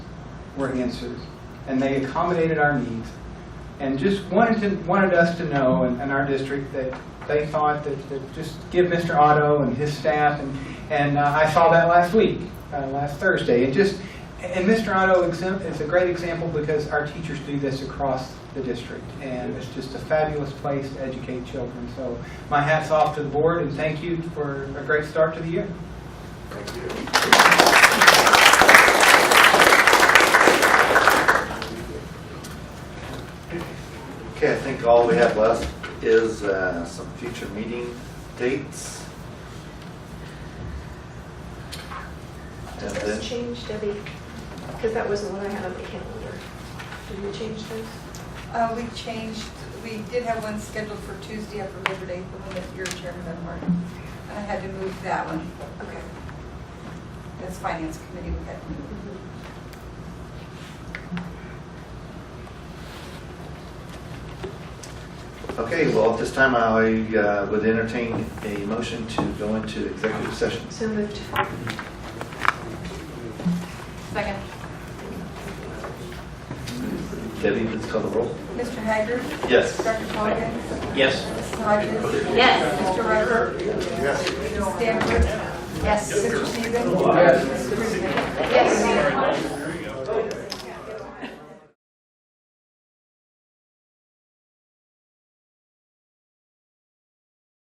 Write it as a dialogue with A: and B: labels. A: were answered, and they accommodated our needs, and just wanted to, wanted us to know, and, and our district, that they thought that, that just give Mr. Otto and his staff, and, and uh, I saw that last week, uh, last Thursday, it just, and Mr. Otto exemp- is a great example because our teachers do this across the district, and it's just a fabulous place to educate children, so my hat's off to the board, and thank you for a great start to the year.
B: Thank you. Okay, I think all we have left is uh, some future meeting dates. And
C: Does
B: then,
C: this change, Debbie? Because that was the one I had on the calendar. Did you change those?
D: Uh, we changed, we did have one scheduled for Tuesday after Labor Day, the one that you're chairman of, Martin. I had to move that one.
C: Okay.
D: That's Finance Committee, we had to move.
B: okay, well, at this time, I uh, would entertain a motion to go into executive session.
C: So moved.
E: Second.
B: Debbie, please call the roll.
D: Mr. Hager?
B: Yes.
D: Dr. Cogan?
F: Yes.
D: Mrs. Hodges?
E: Yes.
D: Mr. Rucker? Yes. Ms. Stanford?
E: Yes.
D: Mr. Stevens?
A: Yes.
D: Mr. Ruth